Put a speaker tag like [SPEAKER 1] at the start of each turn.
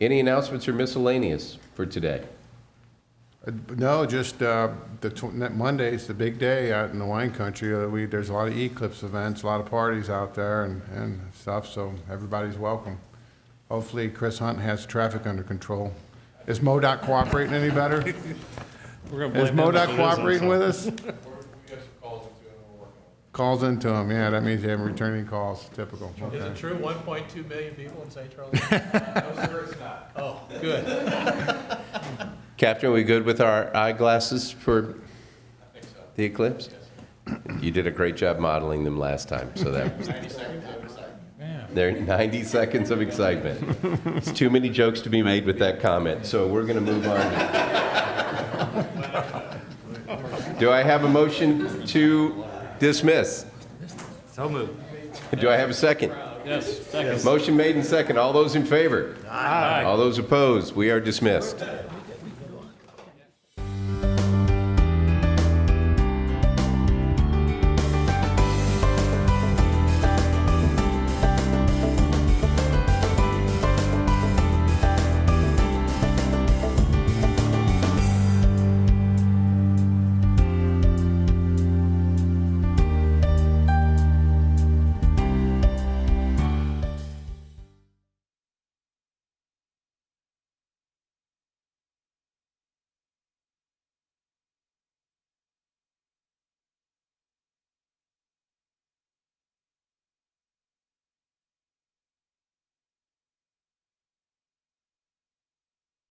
[SPEAKER 1] Any announcements or miscellaneous for today?
[SPEAKER 2] Uh, No, just uh, the tw- ne- Monday's the big day out in the wine country. Uh, We, there's a lot of Eclipse events, a lot of parties out there and, and stuff, so everybody's welcome. Hopefully Chris Hunt has traffic under control. Is MoDOT cooperating any better?
[SPEAKER 3] We're gonna
[SPEAKER 2] Is
[SPEAKER 3] blame them if
[SPEAKER 2] MoDOT
[SPEAKER 3] it isn't,
[SPEAKER 2] cooperating
[SPEAKER 3] so.
[SPEAKER 2] with us? Calls into them, yeah, that means they haven't returned any calls, typical.
[SPEAKER 3] Is
[SPEAKER 2] Okay.
[SPEAKER 3] it true, one point two million people in St. Charles? No, sir, it's not. Oh, good.
[SPEAKER 1] Captain, we good with our eyeglasses for the eclipse? You did a great job modeling them last time, so that. They're 90 seconds of excitement. It's too many jokes to be made with that comment, so we're going to move on. Do I have a motion to dismiss?
[SPEAKER 3] So moved.
[SPEAKER 1] Do I have a second?
[SPEAKER 3] Yes, second.
[SPEAKER 1] Motion made and second. All those in favor? All those opposed? We are dismissed.